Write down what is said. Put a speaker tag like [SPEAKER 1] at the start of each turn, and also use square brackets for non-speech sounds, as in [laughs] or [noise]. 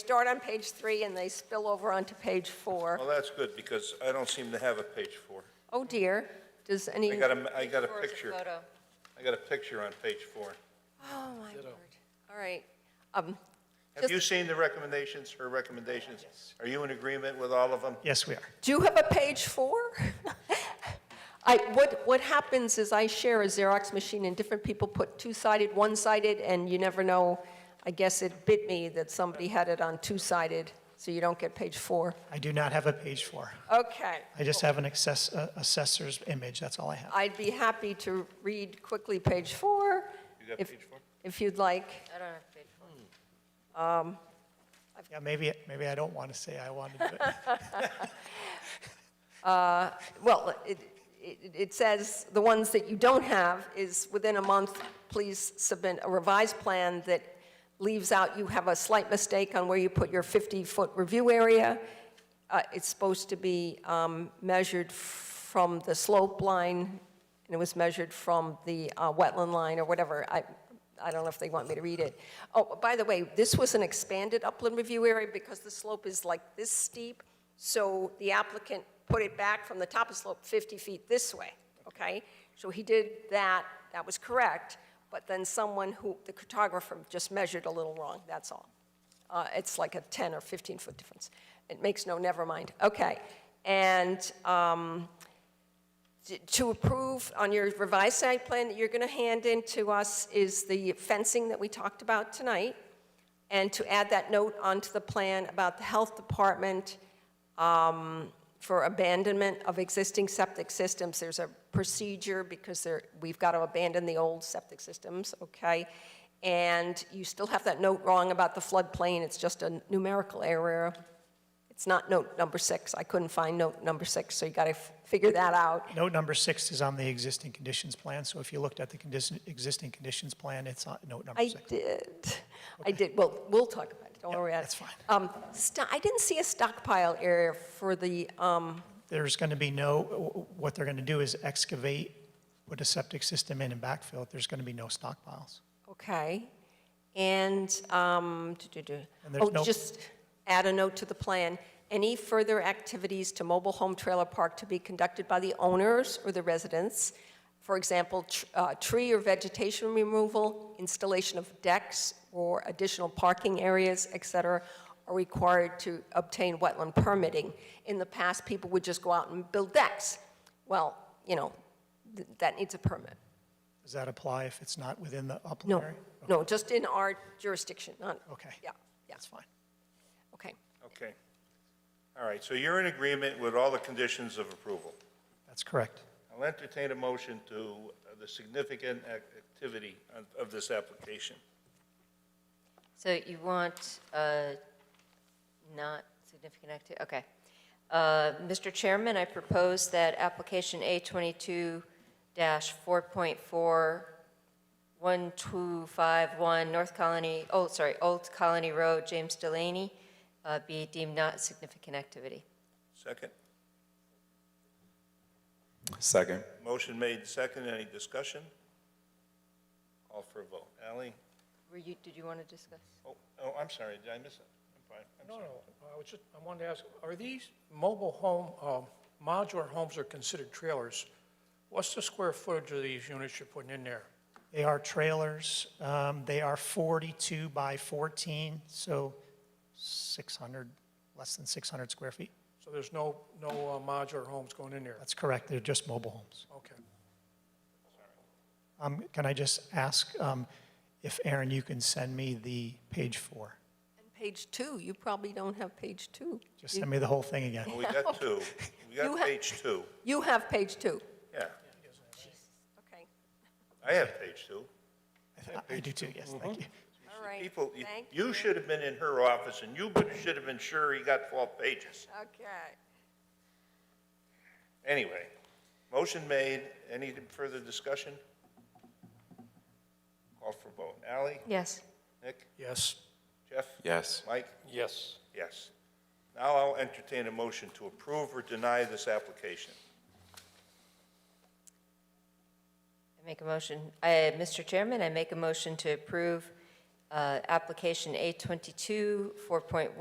[SPEAKER 1] start on page three and they spill over onto page four.
[SPEAKER 2] Well, that's good, because I don't seem to have a page four.
[SPEAKER 1] Oh dear, does any?
[SPEAKER 2] I got a, I got a
[SPEAKER 3] Or is it
[SPEAKER 2] picture,
[SPEAKER 3] photo?
[SPEAKER 2] I got a picture on page four.
[SPEAKER 1] Oh, my word. All right. Um,
[SPEAKER 2] Have
[SPEAKER 1] Just-
[SPEAKER 2] you seen the recommendations, her recommendations? Are you in agreement with all of them?
[SPEAKER 4] Yes, we are.
[SPEAKER 1] Do you have a page four? [laughs] I, what, what happens is I share a Xerox machine and different people put two-sided, one-sided, and you never know. I guess it bit me that somebody had it on two-sided, so you don't get page four.
[SPEAKER 4] I do not have a page four.
[SPEAKER 1] Okay.
[SPEAKER 4] I just have an access, uh, assessor's image, that's all I have.
[SPEAKER 1] I'd be happy to read quickly page four.
[SPEAKER 2] You got
[SPEAKER 1] if-
[SPEAKER 2] page four?
[SPEAKER 1] If you'd like.
[SPEAKER 3] I don't have page four.
[SPEAKER 4] Yeah, maybe, maybe I don't want to say I want to do it. [laughs]
[SPEAKER 1] Well, it, it, it says, the ones that you don't have is, within a month, please submit a revised plan that leaves out, you have a slight mistake on where you put your 50-foot review area. Uh, It's supposed to be um, measured from the slope line, and it was measured from the uh, wetland line or whatever. I, I don't know if they want me to read it. Oh, by the way, this was an expanded upland review area because the slope is like this steep, so the applicant put it back from the top of slope 50 feet this way, okay? So he did that, that was correct, but then someone who, the cartographer just measured a little wrong, that's all. Uh, It's like a 10 or 15-foot difference. It makes no, never mind, okay. And um, t- to approve on your revised site plan that you're going to hand in to us is the fencing that we talked about tonight, and to add that note onto the plan about the health department um, for abandonment of existing septic systems, there's a procedure because there, we've got to abandon the old septic systems, okay? And you still have that note wrong about the floodplain, it's just a numerical error. It's not note number six, I couldn't find note number six, so you got to figure that out.
[SPEAKER 4] Note number six is on the existing conditions plan, so if you looked at the condition, existing conditions plan, it's on note number
[SPEAKER 1] I
[SPEAKER 4] six.
[SPEAKER 1] did, I did, well, we'll talk about it, don't worry about it.
[SPEAKER 4] that's fine.
[SPEAKER 1] Um, sto- I didn't see a stockpile area for the, um,
[SPEAKER 4] There's going to be no, what they're going to do is excavate, put a septic system in and backfill it. There's going to be no stockpiles.
[SPEAKER 1] Okay, and, um, du-du-du.
[SPEAKER 4] And there's
[SPEAKER 1] oh,
[SPEAKER 4] no-
[SPEAKER 1] just add a note to the plan. Any further activities to mobile home trailer park to be conducted by the owners or the residents? For example, tr- uh, tree or vegetation removal, installation of decks or additional parking areas, et cetera, are required to obtain wetland permitting. In the past, people would just go out and build decks. Well, you know, th- that needs a permit.
[SPEAKER 4] Does that apply if it's not within the upland
[SPEAKER 1] No,
[SPEAKER 4] area?
[SPEAKER 1] no, just in our jurisdiction, not,
[SPEAKER 4] Okay.
[SPEAKER 1] yeah, yeah,
[SPEAKER 4] That's fine.
[SPEAKER 1] okay.
[SPEAKER 2] Okay. All right, so you're in agreement with all the conditions of approval.
[SPEAKER 4] That's correct.
[SPEAKER 2] I'll entertain a motion to uh, the significant ac- activity of- of this application.
[SPEAKER 3] So you want uh, not significant activity, okay. Uh, Mr. Chairman, I propose that application A twenty-two dash four point four one two five one North Colony, oh, sorry, Old Colony Road, James Delaney, uh, be deemed not significant activity.
[SPEAKER 2] Second?
[SPEAKER 5] Second.
[SPEAKER 2] Motion made second. Any discussion? Call for a vote. Ally?
[SPEAKER 3] Were you, did you want to discuss?
[SPEAKER 2] Oh, oh, I'm sorry. Did I miss it? I'm fine. I'm
[SPEAKER 6] No,
[SPEAKER 2] sorry.
[SPEAKER 6] no, I was just, I wanted to ask, are these mobile home, um, modular homes are considered trailers? What's the square footage of these units you're putting in there?
[SPEAKER 4] They are trailers. Um, They are 42 by 14, so 600, less than 600 square feet.
[SPEAKER 6] So there's no, no uh, modular homes going in there?
[SPEAKER 4] That's correct. They're just mobile homes.
[SPEAKER 6] Okay.
[SPEAKER 4] Um, Can I just ask um, if, Aaron, you can send me the page four?
[SPEAKER 1] And page two, you probably don't have page two.
[SPEAKER 4] Just send me the whole thing again.
[SPEAKER 2] Well, We
[SPEAKER 1] [laughs]
[SPEAKER 2] got two. We
[SPEAKER 1] You
[SPEAKER 2] got
[SPEAKER 1] ha-
[SPEAKER 2] page two.
[SPEAKER 1] You have page two,
[SPEAKER 2] Yeah.
[SPEAKER 1] okay,
[SPEAKER 2] I have page two.
[SPEAKER 4] I do too, yes, thank you.
[SPEAKER 1] all right.
[SPEAKER 2] People, you-
[SPEAKER 1] Thank
[SPEAKER 2] you should have been in her office, and you should have been sure he got four pages.
[SPEAKER 1] Okay.
[SPEAKER 2] Anyway, motion made. Any further discussion? Call for vote. Ally?
[SPEAKER 3] Yes.
[SPEAKER 2] Nick?
[SPEAKER 6] Yes.
[SPEAKER 2] Jeff?
[SPEAKER 5] Yes.
[SPEAKER 2] Mike?
[SPEAKER 6] Yes.
[SPEAKER 2] Yes. Now I'll entertain a motion to approve or deny this application.
[SPEAKER 3] I make a motion, I, Mr. Chairman, I make a motion to approve uh, application A twenty-two, four point one.